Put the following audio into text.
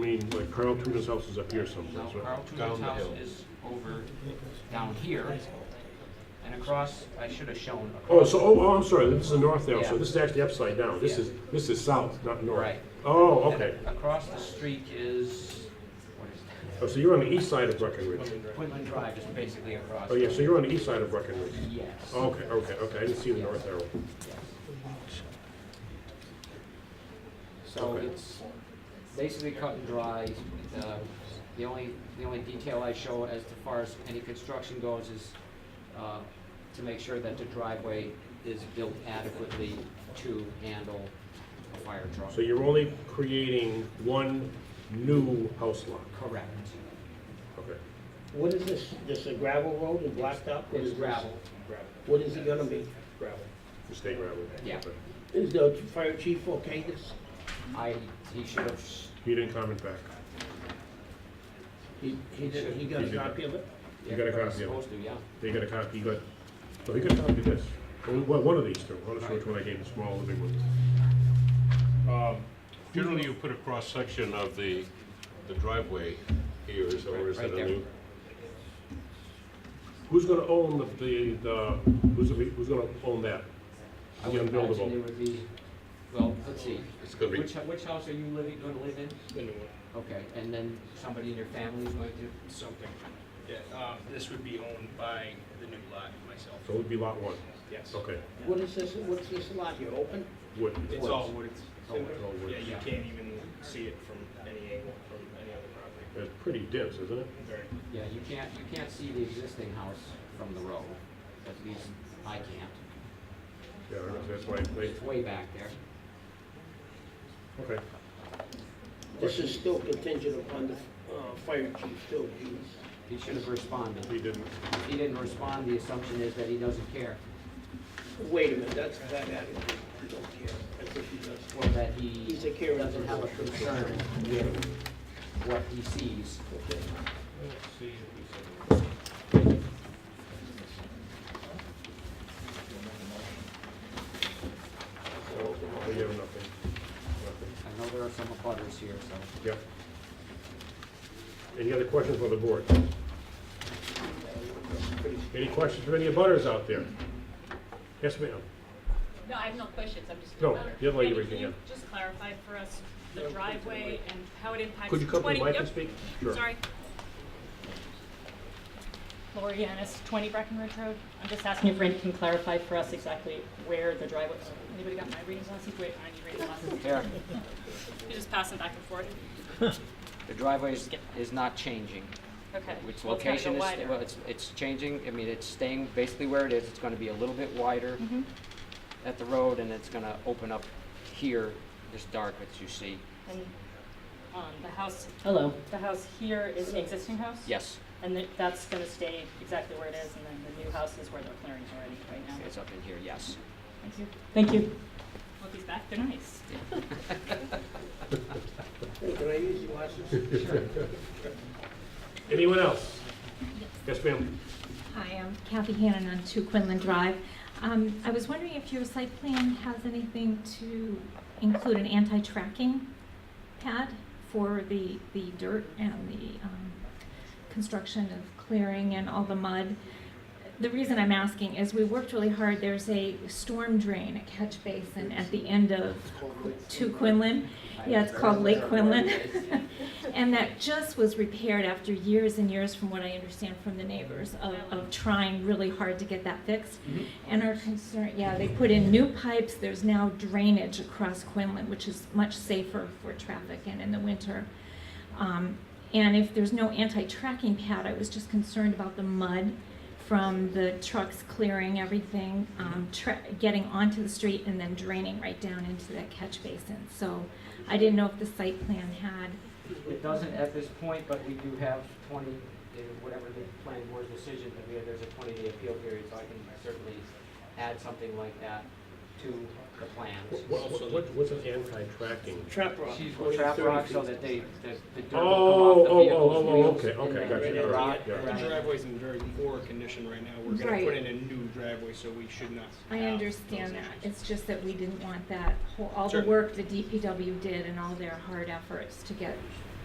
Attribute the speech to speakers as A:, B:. A: Carl Tudor's house is up here
B: No,
A: someplace, right?
B: Carl Tudor's
C: Down the
B: house
C: hill.
B: is over down here, and across, I should have shown
A: Oh,
B: across.
A: so, oh, oh, I'm sorry, this is the north now, so
B: Yeah.
A: this is actually upside down. This
B: Yeah.
A: is, this is south, not north.
B: Right.
A: Oh,
B: And
A: okay.
B: Across the street is, what is
A: Oh, so you're on the east side of Breckenridge.
B: that? Quinlan Drive is basically across.
A: Oh, yeah, so you're on the east side of Breckenridge.
B: Yes.
A: Okay, okay, okay, I didn't see the north arrow.
B: yes. So
A: Okay.
B: it's basically cut and dry. Uh, The only, the only detail I show as to far as any construction goes is uh, to make sure that the driveway is built adequately to handle a fire truck.
A: So you're only creating one new house lot?
B: Correct.
A: Okay.
D: What is this, this a gravel road and blocked up? What
B: It's
D: is this?
B: gravel.
D: Gravel. What is it gonna be? Gravel.
A: Just stay gravel.
B: Yeah.
A: Okay.
D: Is the fire chief okay this?
B: I, he should have, s-
A: He didn't comment back.
D: He, he did, he got
A: He
D: a
A: did.
D: copy of it?
A: You got a
B: Yeah,
A: copy of it?
B: Supposed to, yeah.
A: They got a copy, he got, no, he got a copy of this. Only one one of these two, I'm not sure which one I gave, the small or the big one.
C: Um, Generally, you put a cross-section of the the driveway here, is that- or is
B: Right-
C: that
B: right
C: a new?
A: Who's gonna own the, the, the, who's, gonna be- who's gonna own that?
B: I
A: The
B: would imagine
A: unbuildable.
B: it would be, well, let's see.
C: It's gonna be,
B: Which, hu- which house are you living, gonna live in?
E: The new one,
B: Okay, and then somebody in your family is going to,
E: something. Yeah, um, this would be owned by the new lot myself,
A: So it would be lot one,
E: yes.
A: okay.
D: What is this, what's this lot here, open?
A: Wood.
E: It's all wood. It's-
A: Oh, it's all wood.
E: Yeah, you can't even see it from any angle, from any other property.
A: It's pretty dense, isn't it?
E: Very-
B: yeah, you can't, you can't see the existing house from the road. At least I can't.
A: Yeah, I know, that's why, they,
B: It's way back there.
A: okay.
D: This is still contingent upon the, uh, fire chief still being
B: He should have responded.
A: He didn't,
B: If he didn't respond, the assumption is that he doesn't care,
D: Wait a minute, that's a bad attitude, you don't care, I think he does.
B: or that he
D: He's a carer.
B: doesn't have a concern with what he sees.
A: so, we have nothing, nothing,
B: I know there are some abutters here, so.
A: yep. Any other questions for the board? Any questions from any butters out there? Yes, ma'am?
F: No, I have no questions, I'm just.
A: No,
F: about-
A: you have, like,
F: Andy,
A: everything,
F: can
A: yeah.
F: you Just clarify for us the driveway and how it impacts.
A: Could you come to the
F: 20
A: mic and
F: yep,
A: speak? Sure.
F: Sorry.
G: Lori Yanis, 20 Breckenridge Road. I'm just asking if Randy can clarify for us exactly where the driveway, anybody got my reading glasses? Wait, I need reading glasses.
B: Here,
F: You just pass them back and forth.
B: the driveway is, is not changing.
F: Okay.
B: Which
F: Well, it's gotta
B: location
F: go
B: is,
F: wider.
B: well, it's, it's changing, I mean, it's staying basically where it is, it's gonna be a little bit wider
F: Mm-hmm.
B: at the road, and it's gonna open up here, this dark that you see,
G: And um,
F: The house,
G: the- the house here is the existing house?
B: yes,
G: And th- that's going to stay exactly where it is, and then the new house is where they're clearing already right now.
B: it's up in here, yes.
G: Thank you. Thank you.
F: look, he's back, they're nice.
D: Hey, can I use your glasses?
A: Anyone else? Yes, ma'am?
H: Hi, I'm Kathy Hannan on 2 Quinlan Drive. Um, I was wondering if your site plan has anything to include an anti-tracking pad for the, the dirt and the um, construction of clearing and all the mud. The reason I'm asking is we worked really hard. There's a storm drain, a catch basin at the end of 2 Quinlan. Yeah, it's called Lake Quinlan. And that just was repaired after years and years, from what I understand from the neighbors, of, of trying really hard to get that fixed. And our concern, yeah, they put in new pipes, there's now drainage across Quinlan, which is much safer for traffic and in the winter. Um, and if there's no anti-tracking pad, I was just concerned about the mud from the trucks clearing everything, um, tra- getting onto the street and then draining right down into that catch basin. So I didn't know if the site plan had
B: It doesn't at this point, but we do have twenty, uh, whatever the planning board's decision, that we have, there's a twenty day appeal period, so I can certainly add something like that to the plans.
A: What, what- what, what's an anti-tracking?
D: Trap rock.
B: She's
D: only
B: trap
D: 30
B: rock so
D: feet.
B: that they, that the dirt will come
A: Oh,
B: off the
A: oh, oh,
B: vehicle's
A: oh, oh,
B: wheels
A: okay,
B: and
A: okay,
B: then
A: gotcha,
B: the
A: all
B: rock
A: right, yeah.
B: around
E: The
B: it.
E: driveway's in very poor condition right now. We're gonna put
H: Right.
E: in a new driveway, so we should not.
H: I
E: have
H: understand
E: those
H: that,
E: issues.
H: it's just that we didn't want that, whole all the
E: Sure.
H: work the DPW did and all their hard efforts to get